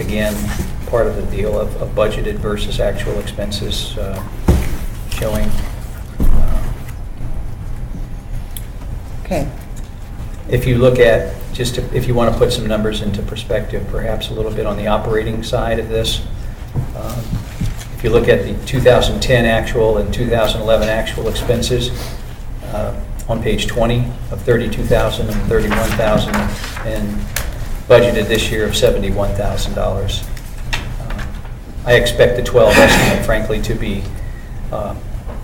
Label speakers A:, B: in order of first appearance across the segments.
A: again, part of the deal of of budgeted versus actual expenses uh, showing. uh,
B: Okay.
A: If you look at, just to- if you want to put some numbers into perspective, perhaps a little bit on the operating side of this, um, if you look at the 2010 actual and 2011 actual expenses, uh, on page 20 of 32,000 and 31,000, and budgeted this year of $71,000. Um, I expect the 12 estimate frankly to be uh,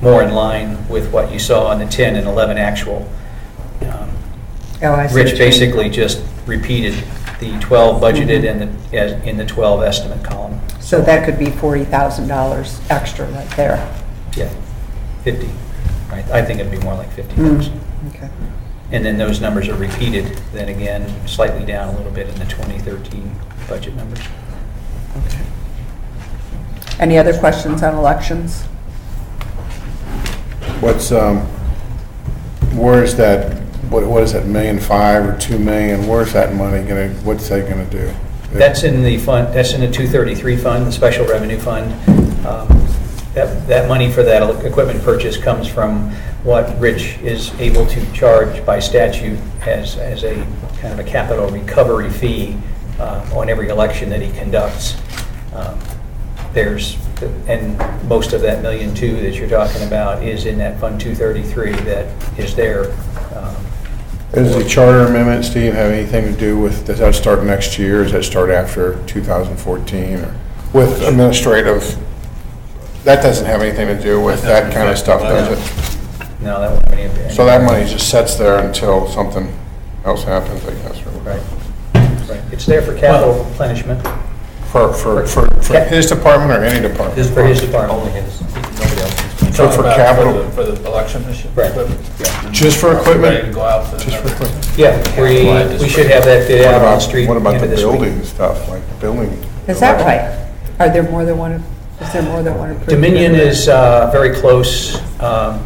A: more in line with what you saw on the 10 and 11 actual. Um,
B: Oh, I see what
A: Rich
B: you mean.
A: basically just repeated the 12 budgeted and the, as- in the 12 estimate column.
B: Mm-hmm. So that could be $40,000 extra right there.
A: Yeah, 50, right? I think it'd be more like 50 bucks.
B: Mm, Okay.
A: And then those numbers are repeated, then again, slightly down a little bit in the 2013 budget numbers.
B: Okay. Any other questions on elections?
C: What's, um, where is that, what, what is that, million five or two million? Where's that money gonna, what's that gonna do?
A: That's in the fund, that's in the 233 fund, the special revenue fund. Um, That, that money for that equipment purchase comes from what Rich is able to charge by statute as, as a kind of a capital recovery fee uh, on every election that he conducts. Um, There's, and most of that million two that you're talking about is in that Fund 233 that is there. um,
C: Does the charter amendment, Steve, have anything to do with, does that start next year, or does that start after 2014? or With administrative, that doesn't have anything to do with that kind of stuff, does it?
A: No, that won't have any.
C: So that money just sits there until something else happens, I guess, or
A: Right,
C: whatever.
A: right. It's there for capital replenishment.
C: For, for, for for his department or any department?
A: For his department.
D: Only his, nobody else's.
C: So
D: Talking
C: for
D: about
C: capital-
D: the- For the election issue?
A: Right.
C: Just for
D: Ready to
C: equipment?
D: go out for the
C: Just for
D: numbers.
C: equipment?
A: Yeah, we, we should have that bid out
C: What
A: on the
C: about-
A: street.
C: What about
A: end
C: the
A: of this week.
C: building stuff, like building?
B: Is that right? Are there more than one, is there more than one approved?
A: Dominion is uh, very close um,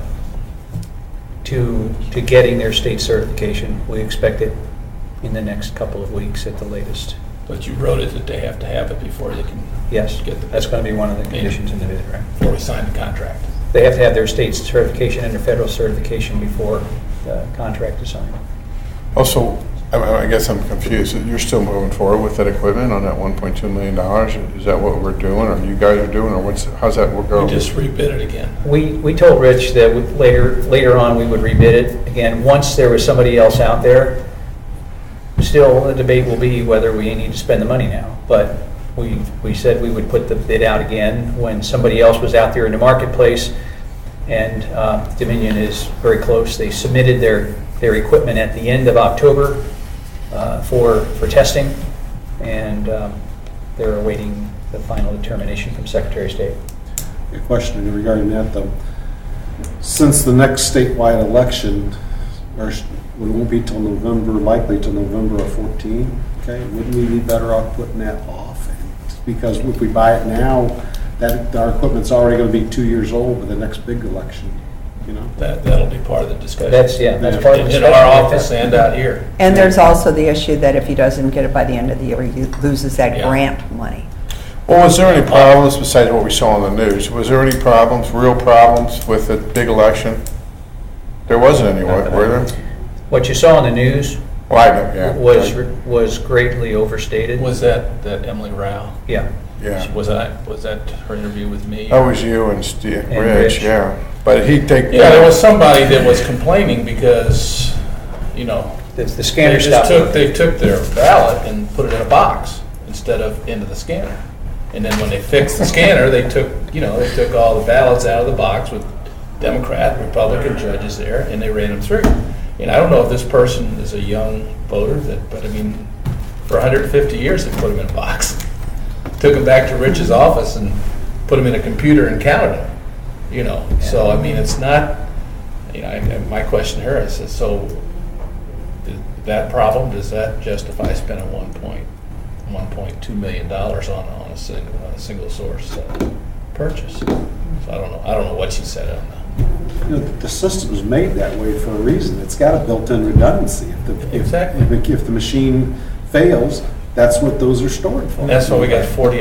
A: to, to getting their state certification. We expect it in the next couple of weeks at the latest.
D: But you wrote it that they have to have it before they can.
A: Yes,
D: Get the-
A: that's going to be one of the conditions in the bid, right?
D: Before we sign the contract.
A: They have to have their state certification and their federal certification before the contract is signed.
C: Also, I- oh, I I guess I'm confused. You're still moving forward with that equipment on that 1.2 million dollars? Is that what we're doing, or you guys are doing, or what's, how's that work
D: We
C: out?
D: just rebid it again.
A: We, we told Rich that we- later, later on, we would rebid it. Again, once there was somebody else out there, still, the debate will be whether we need to spend the money now. But we, we said we would put the bid out again when somebody else was out there in the marketplace. And uh, Dominion is very close. They submitted their, their equipment at the end of October uh, for, for testing. And um, they're awaiting the final determination from Secretary of State.
E: A question regarding that, though. Since the next statewide election, or sh- it won't be till November, likely till November of 14, okay, wouldn't we be better off putting that off? Because if we buy it now, that, our equipment's already going to be two years old with the next big election, you know?
D: That, that'll be part of the discussion.
A: That's, yeah, that's part of the
D: In
A: discussion
D: our
A: right
D: office
A: there.
D: and out here.
B: And there's also the issue that if he doesn't get it by the end of the year, he loses that
D: Yeah.
B: grant money.
C: Well, was there any problems besides what we saw on the news? Was there any problems, real problems with the big election? There wasn't any, wa- were there?
A: What you saw on the news
C: Well, I don't, yeah.
A: was, was greatly overstated.
D: Was that, that Emily Rao?
A: Yeah,
C: Yeah. Oh,
D: Was that, was that her interview with me?
C: That was you and Steve,
A: And Rich.
C: Rich, yeah. But he, they.
D: Yeah, there was somebody that was complaining because, you know,
A: the the
D: they
A: scanner
D: just
A: stopped.
D: took, they took their ballot and put it in a box instead of into the scanner. And then when they fixed the scanner, they took, you know, they took all the ballots out of the box with Democrat, Republican judges there, and they ran them through. And I don't know if this person is a young voter that, but I mean, for 150 years, they put them in a box. Took them back to Rich's office and put them in a computer and counted them, you know? So, I mean, it's not, you know, I- I- my question to her is, so Th- that problem, does that justify spending one point, one point two million dollars on, on a single, on a single source uh, purchase? So I don't know, I don't know what she said on that.
E: You know, The system's made that way for a reason. It's got a built-in redundancy. If the- if-
D: Exactly.
E: If the machine fails,
F: That's what those are stored for.
E: That's why we got 40